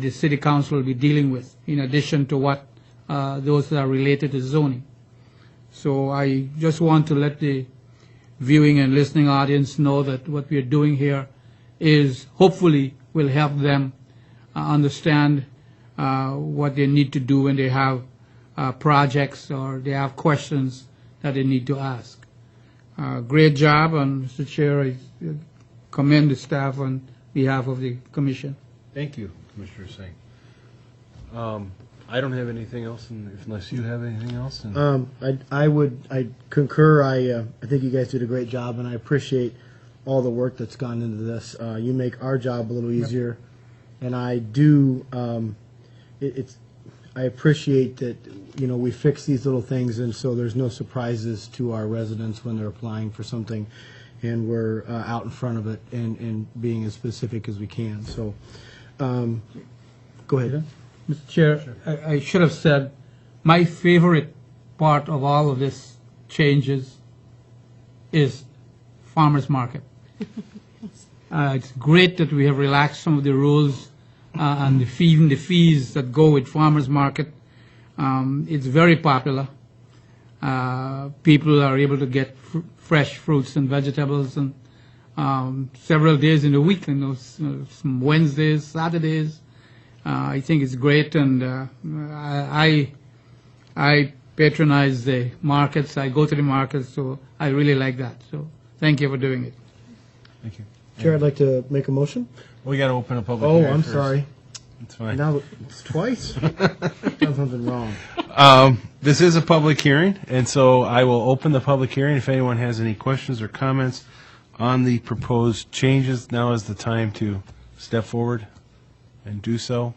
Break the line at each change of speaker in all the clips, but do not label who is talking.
the city council will be dealing with, in addition to what, uh, those that are related to zoning. So I just want to let the viewing and listening audience know that what we are doing here is hopefully will help them uh, understand uh, what they need to do when they have uh, projects or they have questions that they need to ask. Uh, Great job, and Mr. Chair, I commend the staff on behalf of the commission.
Thank you, Commissioner Singh. Um, I don't have anything else, and if- unless you have anything else, and
Um, I, I would, I concur. I, uh, I think you guys did a great job, and I appreciate all the work that's gone into this. Uh, you make our job a little easier, and I do. Um, it, it's, I appreciate that you know we fix these little things, and so there's no surprises to our residents when they're applying for something, and we're uh, out in front of it and, and being as specific as we can. So, um, go ahead.
Mr. Chair, I I should have said, my favorite part of all of this changes is farmer's market. Uh, It's great that we have relaxed some of the rules uh, and the fee, even the fees that go with farmer's market. Um, It's very popular. Uh, People are able to get fr- fresh fruits and vegetables and um, several days in the week, you know, s- uh, some Wednesdays, Saturdays. Uh, I think it's great, and uh, I I I patronize the markets. I go to the markets, so I really like that. So thank you for doing it.
thank you.
Chair, I'd like to make a motion.
We got to open a public.
Oh,
hearing
I'm
first.
sorry.
It's fine.
Now it's twice. Done something wrong.
Um, this is a public hearing, and so I will open the public hearing. If anyone has any questions or comments on the proposed changes, now is the time to step forward and do so.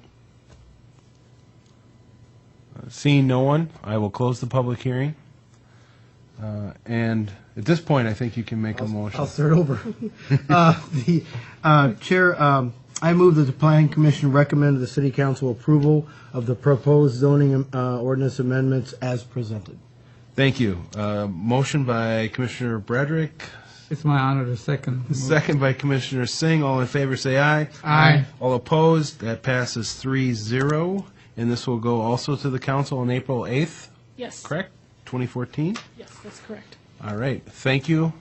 Uh, Seeing no one, I will close the public hearing. Uh, and at this point, I think you can make a motion.
I'll start over. uh, the uh, chair, um, I move that the planning commission recommend the city council approval of the proposed zoning uh, ordinance amendments as presented.
Thank you. Uh, Motion by Commissioner Bradrick,
It's my honor to second.
second by Commissioner Singh. All in favor, say aye.
Aye.
All opposed, that passes three zero. And this will go also to the council on April 8th,
Yes.
correct? 2014?
Yes, that's correct.
All right. Thank you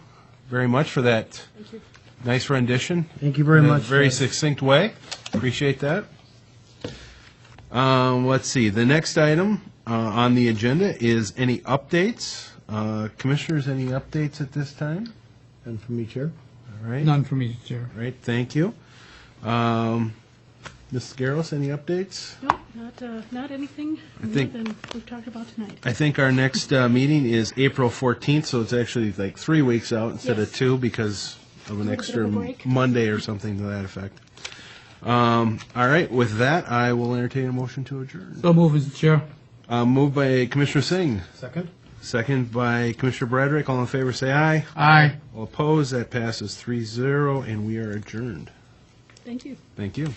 very much for that
Thank you.
nice rendition.
Thank you very
in a
much.
Very
Fred.
succinct way. Appreciate that. Um, let's see. The next item uh, on the agenda is any updates. Uh, commissioners, any updates at this time?
and from me, chair.
All right.
None for me, Chair.
All right. Thank you. Um, Ms. Garros, any updates?
No, not, uh, not anything more
think-
than we've talked about tonight.
I think our next uh, meeting is April 14th, so it's actually like three weeks out instead of
Yes.
two because of an
bit
extra
of a break.
Monday or something to that effect. Um, all right. With that, I will entertain a motion to adjourn.
So move, Mr. Chair.
Uh, Moved by Commissioner Singh,
Second.
second by Commissioner Bradrick. All in favor, say aye.
Aye.
All opposed, that passes 3-0, and we are adjourned.
Thank you.
Thank you.